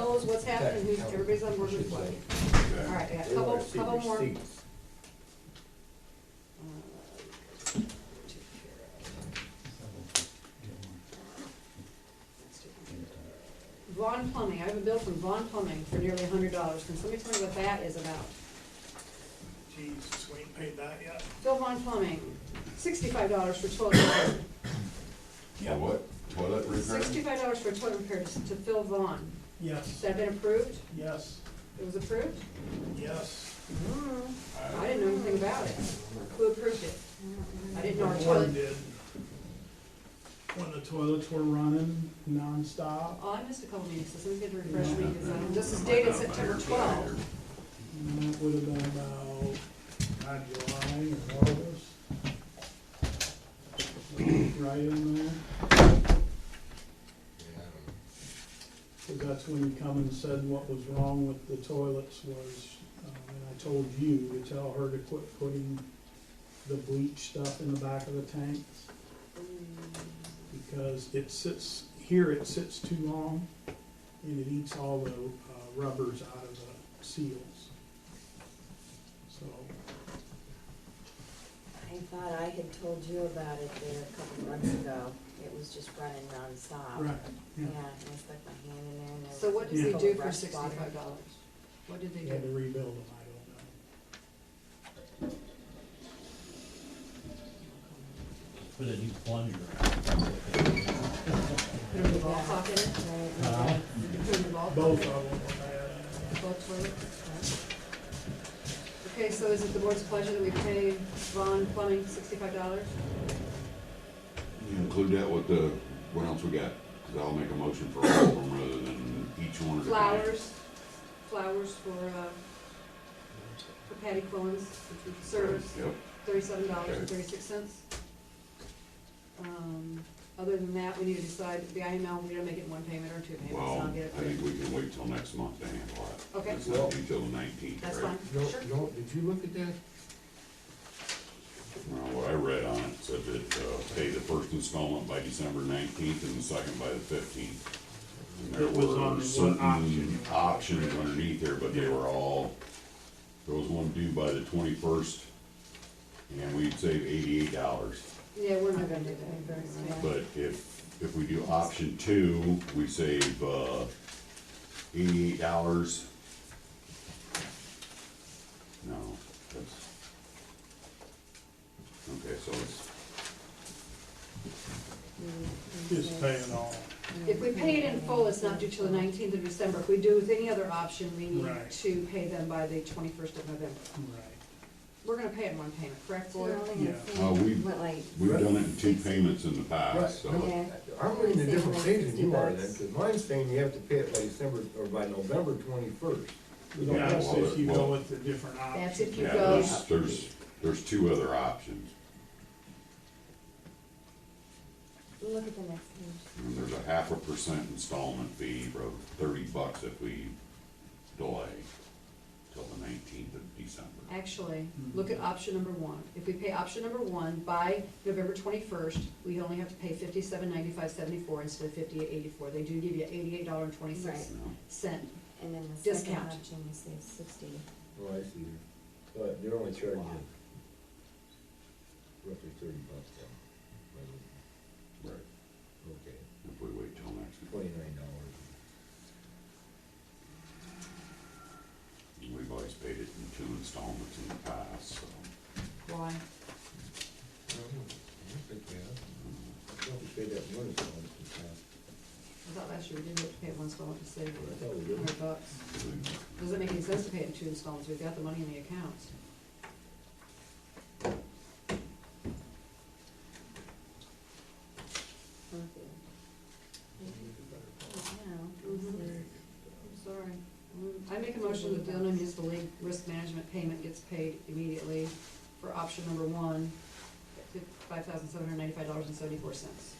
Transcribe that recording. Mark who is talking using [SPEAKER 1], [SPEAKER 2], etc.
[SPEAKER 1] knows what's happening, who's, everybody's on board with what.
[SPEAKER 2] Okay.
[SPEAKER 1] All right, I got a
[SPEAKER 3] They wanna
[SPEAKER 1] couple,
[SPEAKER 3] see
[SPEAKER 1] couple more. Uh,
[SPEAKER 3] receipts.
[SPEAKER 1] take care of. Let's do Vaughn Plumbing, I have a bill from Vaughn Plumbing for nearly a hundred dollars, can somebody tell me what that is about?
[SPEAKER 4] Jesus, we ain't paid that yet.
[SPEAKER 1] Phil Vaughn Plumbing, sixty-five dollars for toilet repair,
[SPEAKER 2] For what? Toilet repair?
[SPEAKER 1] sixty-five dollars for toilet repair to to Phil Vaughn, has
[SPEAKER 4] Yes,
[SPEAKER 1] that been approved?
[SPEAKER 4] yes,
[SPEAKER 1] It was approved?
[SPEAKER 4] yes.
[SPEAKER 1] Mm, I
[SPEAKER 2] Uh,
[SPEAKER 1] didn't know anything about it, who approved it? I didn't know our
[SPEAKER 4] Warren
[SPEAKER 1] toilet,
[SPEAKER 4] did. When the toilets were running nonstop,
[SPEAKER 1] oh, I missed a couple meetings, so somebody's gonna refresh me, 'cause, um, this is dated September twelve.
[SPEAKER 4] and that would have been about, God, July or August. Right in there, because that's when you come and said what was wrong with the toilets was, um, and I told you to tell her to quit putting the bleach stuff in the back of the tanks. because it sits, here it sits too long, and it eats all the uh, rubbers out of the seals. So,
[SPEAKER 5] I thought I had told you about it there a couple months ago. It was just running nonstop.
[SPEAKER 4] right,
[SPEAKER 5] Yeah,
[SPEAKER 4] yeah,
[SPEAKER 5] and I stuck my hand in there and there was.
[SPEAKER 1] So what did
[SPEAKER 4] Yeah.
[SPEAKER 1] they do
[SPEAKER 5] full
[SPEAKER 1] for
[SPEAKER 5] of fresh
[SPEAKER 1] sixty-five
[SPEAKER 5] water.
[SPEAKER 1] dollars? What did they
[SPEAKER 4] they had to
[SPEAKER 1] do?
[SPEAKER 4] rebuild them, I don't know.
[SPEAKER 6] Put a new plunger.
[SPEAKER 1] Put them in the ball pocket,
[SPEAKER 5] Right,
[SPEAKER 2] Uh-huh.
[SPEAKER 6] Uh,
[SPEAKER 1] put them in the ball pocket,
[SPEAKER 4] Both of them were
[SPEAKER 1] both toilets? Okay, so is it the board's pleasure that we pay Vaughn Plumbing sixty-five dollars?
[SPEAKER 2] You Include that with the, what else we got? Cause I'll make a motion for all of them rather than each one at a time.
[SPEAKER 1] Flowers, flowers for, uh, for Patty Quillen's service,
[SPEAKER 2] Yep,
[SPEAKER 1] thirty-seven dollars and thirty-six cents. Um, other than that, we need to decide, the IML, we're gonna make it one payment or two payments, and I'll
[SPEAKER 2] well,
[SPEAKER 1] get it.
[SPEAKER 2] I think we can wait till next month to handle that.
[SPEAKER 1] Okay.
[SPEAKER 2] It's not until the nineteenth, right?
[SPEAKER 1] That's fine,
[SPEAKER 3] No,
[SPEAKER 1] sure.
[SPEAKER 3] no, did you look at that?
[SPEAKER 2] Well, what I read on it said that, uh, pay the first installment by December nineteenth and the second by the fifteenth. And there
[SPEAKER 4] It was on
[SPEAKER 2] were
[SPEAKER 4] what
[SPEAKER 2] certain
[SPEAKER 4] option.
[SPEAKER 2] options underneath there, but they were all, there was one due by the twenty-first, and we'd save eighty-eight dollars.
[SPEAKER 1] Yeah, we're not gonna do
[SPEAKER 5] Yeah.
[SPEAKER 1] that.
[SPEAKER 2] But if, if we do option two, we save, uh, eighty-eight dollars. No, that's. Okay, so it's
[SPEAKER 4] Mm-hmm. Just pay it all.
[SPEAKER 5] Mm-hmm.
[SPEAKER 1] If we pay it in full, it's not due till the nineteenth of December. If we do with any other option, we need
[SPEAKER 4] Right.
[SPEAKER 1] to pay them by the twenty-first of November.
[SPEAKER 4] Right,
[SPEAKER 1] We're gonna pay it in one payment, correct,
[SPEAKER 5] So
[SPEAKER 1] Lloyd?
[SPEAKER 5] you're only gonna
[SPEAKER 4] Yeah.
[SPEAKER 5] pay
[SPEAKER 2] Uh, we-
[SPEAKER 5] what, like,
[SPEAKER 2] We've done it in two payments in the past,
[SPEAKER 3] Right,
[SPEAKER 2] so,
[SPEAKER 5] Yeah.
[SPEAKER 3] no, I'm reading a different page than you are then,
[SPEAKER 5] $60.
[SPEAKER 3] because mine's saying you have to pay it by December, or by November twenty-first.
[SPEAKER 2] Yeah,
[SPEAKER 4] that's
[SPEAKER 2] well,
[SPEAKER 4] if you go
[SPEAKER 2] well-
[SPEAKER 4] with the different
[SPEAKER 1] That's
[SPEAKER 4] options.
[SPEAKER 1] if you
[SPEAKER 2] yeah,
[SPEAKER 1] go,
[SPEAKER 2] there's, there's, there's two other options.
[SPEAKER 5] look at the next page.
[SPEAKER 2] And there's a half a percent installment fee of thirty bucks if we delay till the nineteenth of December.
[SPEAKER 1] actually, look at option number one. If we pay option number one by November twenty-first, we only have to pay fifty-seven ninety-five seventy-four instead of fifty-eight eighty-four. They do give you eighty-eight dollar and twenty-six
[SPEAKER 2] you know?
[SPEAKER 1] cent.
[SPEAKER 5] And then the second
[SPEAKER 1] Discount.
[SPEAKER 5] option, you say sixty.
[SPEAKER 3] Oh, I see. But they're only charging roughly thirty bucks then.
[SPEAKER 2] Right,
[SPEAKER 3] Okay,
[SPEAKER 2] if we wait till next month.
[SPEAKER 3] twenty-nine dollars.
[SPEAKER 2] We've always paid it in two installments in the past, so.
[SPEAKER 1] Why?
[SPEAKER 3] I thought we paid that one installment in the past.
[SPEAKER 1] I thought last year we didn't have to pay it once, so I want to save
[SPEAKER 3] I
[SPEAKER 1] a
[SPEAKER 3] thought we did.
[SPEAKER 1] hundred bucks. Doesn't make any sense to pay it in two installments, we've got the money in the accounts. Mm-hmm. Mhm. I'm sorry. Mm, I make a motion that the Illinois Municipal League Risk Management payment gets paid immediately for option number one, five thousand seven hundred ninety-five dollars and seventy-four cents. Mm-hmm.